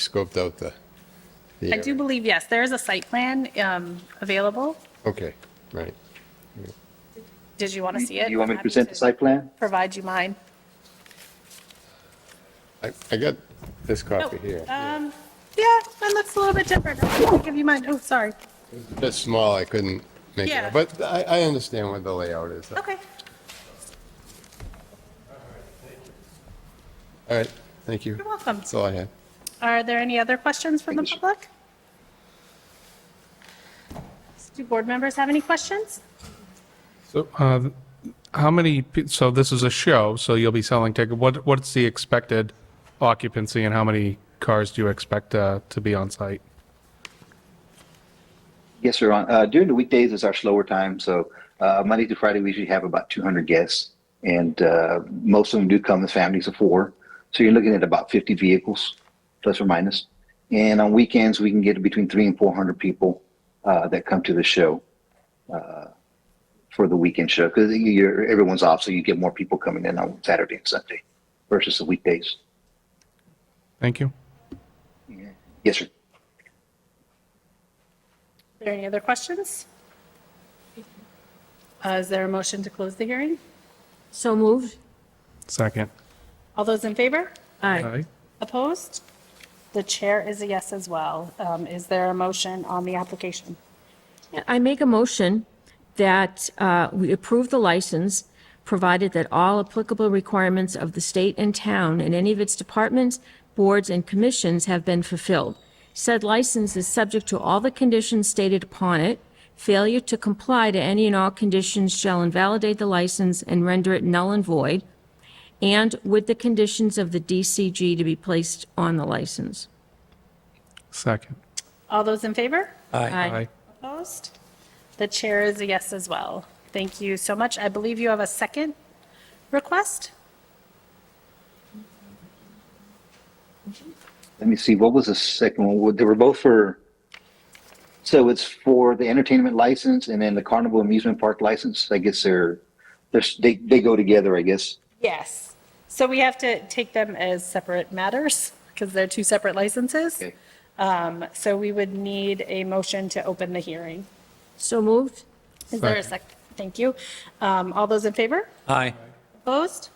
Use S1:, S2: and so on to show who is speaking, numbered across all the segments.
S1: scoped out the, the
S2: I do
S1: area.
S2: believe, yes, there is a site plan um, available.
S1: Okay, right.
S2: Did you want to see it?
S3: Do you want me to
S2: Happy
S3: present the site plan?
S2: Provide you mine.
S1: I, I got this
S2: Oh,
S1: copy here.
S2: um, Yeah, mine looks a little bit different. I'll give you mine. Oh, sorry.
S1: Bit small, I couldn't make it,
S2: Yeah.
S1: out, but I, I understand what the layout is. All
S2: Okay.
S1: right, thank you.
S2: You're welcome.
S1: That's all I had.
S2: Are there any other questions from the public? Do board members have any questions?
S4: So, uh, how many, pe- so this is a show, so you'll be selling ticket. What, what's the expected occupancy and how many cars do you expect uh, to be on site?
S3: Yes, sir. On- Uh, during the weekdays is our slower time. So uh, Monday to Friday, we usually have about 200 guests, and uh, most of them do come as families of four. So you're looking at about 50 vehicles, plus or minus. And on weekends, we can get between three and 400 people uh, that come to the show uh, for the weekend show because everyone's off, so you get more people coming in on Saturday and Sunday versus the weekdays.
S4: Thank you.
S3: Yes, sir.
S2: Are there any other questions? Uh, Is there a motion to close the hearing?
S5: So moved.
S4: Second.
S2: All those in favor?
S5: Aye.
S4: Aye.
S2: Opposed? The chair is a yes as well. Um, Is there a motion on the application?
S5: I make a motion that uh, we approve the license, provided that all applicable requirements of the state and town and any of its departments, boards, and commissions have been fulfilled. Said license is subject to all the conditions stated upon it. Failure to comply to any and all conditions shall invalidate the license and render it null and void, and with the conditions of the DCG to be placed on the license.
S4: Second.
S2: All those in favor?
S5: Aye.
S2: Opposed? The chair is a yes as well. Thank you so much. I believe you have a second request?
S3: let me see, what was the second one? Well, They were both for, so it's for the entertainment license and then the carnival amusement park license. I guess they're, they're, they, they go together, I guess.
S2: Yes. So we have to take them as separate matters because they're two separate licenses.
S3: Okay.
S2: Um, So we would need a motion to open the hearing.
S5: So moved.
S2: Is there a
S4: Second.
S2: sec, thank you. Um, All those in favor?
S6: Aye.
S2: Opposed?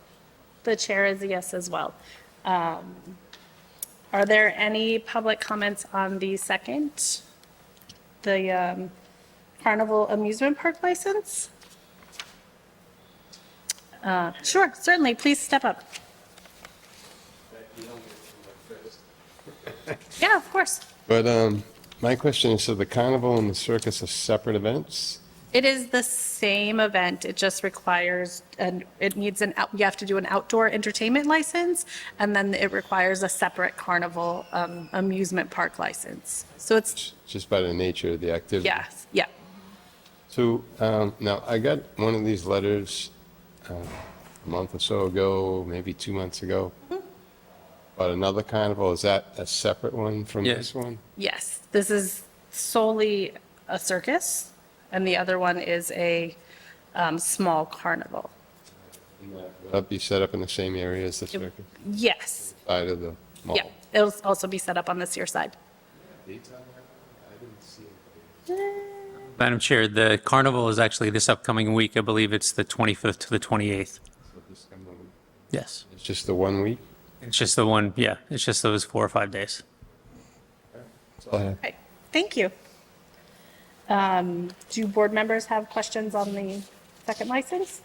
S2: The chair is a yes as well. Um, Are there any public comments on the second, the um, Carnival Amusement Park license? Uh, Sure, certainly, please step up. Yeah, of course.
S1: But, um, my question is, so the carnival and the circus are separate events?
S2: It is the same event, it just requires, and it needs an, out- you have to do an outdoor entertainment license, and then it requires a separate carnival um, amusement park license. So it's,
S1: Just by the nature of the activity?
S2: yes, yeah.
S1: So, um, now, I got one of these letters, um, a month or so ago, maybe two months ago. About another carnival, is that a separate one from
S6: Yeah.
S1: this one?
S2: Yes, this is solely a circus, and the other one is a um, small carnival.
S1: Would that be set up in the same area as the circus,
S2: Yes,
S1: side of the mall?
S2: yeah, it'll also be set up on this year side.
S6: Madam Chair, the carnival is actually this upcoming week. I believe it's the 25th to the 28th. Yes.
S1: It's just the one week?
S6: It's just the one, yeah, it's just those four or five days.
S1: That's all I have.
S2: Okay, thank you. Um, Do board members have questions on the second license?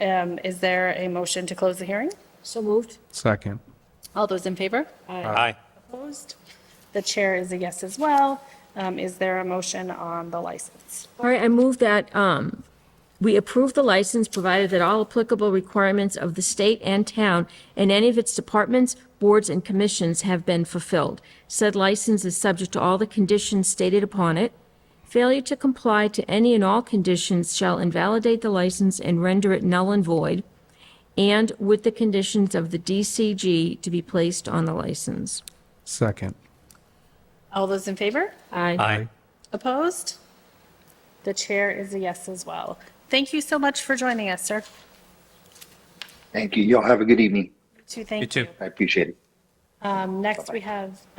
S2: Um, Is there a motion to close the hearing?
S5: So moved.
S4: Second.
S2: All those in favor?
S6: Aye.
S2: Opposed? The chair is a yes as well. Um, Is there a motion on the license?
S5: All right, I move that um, we approve the license, provided that all applicable requirements of the state and town and any of its departments, boards, and commissions have been fulfilled. Said license is subject to all the conditions stated upon it. Failure to comply to any and all conditions shall invalidate the license and render it null and void, and with the conditions of the DCG to be placed on the license.
S4: Second.
S2: All those in favor?
S5: Aye.
S6: Aye.
S2: Opposed? The chair is a yes as well. Thank you so much for joining us, sir.
S3: Thank you. Y'all have a good evening.
S2: To
S6: You
S2: thank
S6: too.
S2: you.
S3: I appreciate it.
S2: Um, Next, we have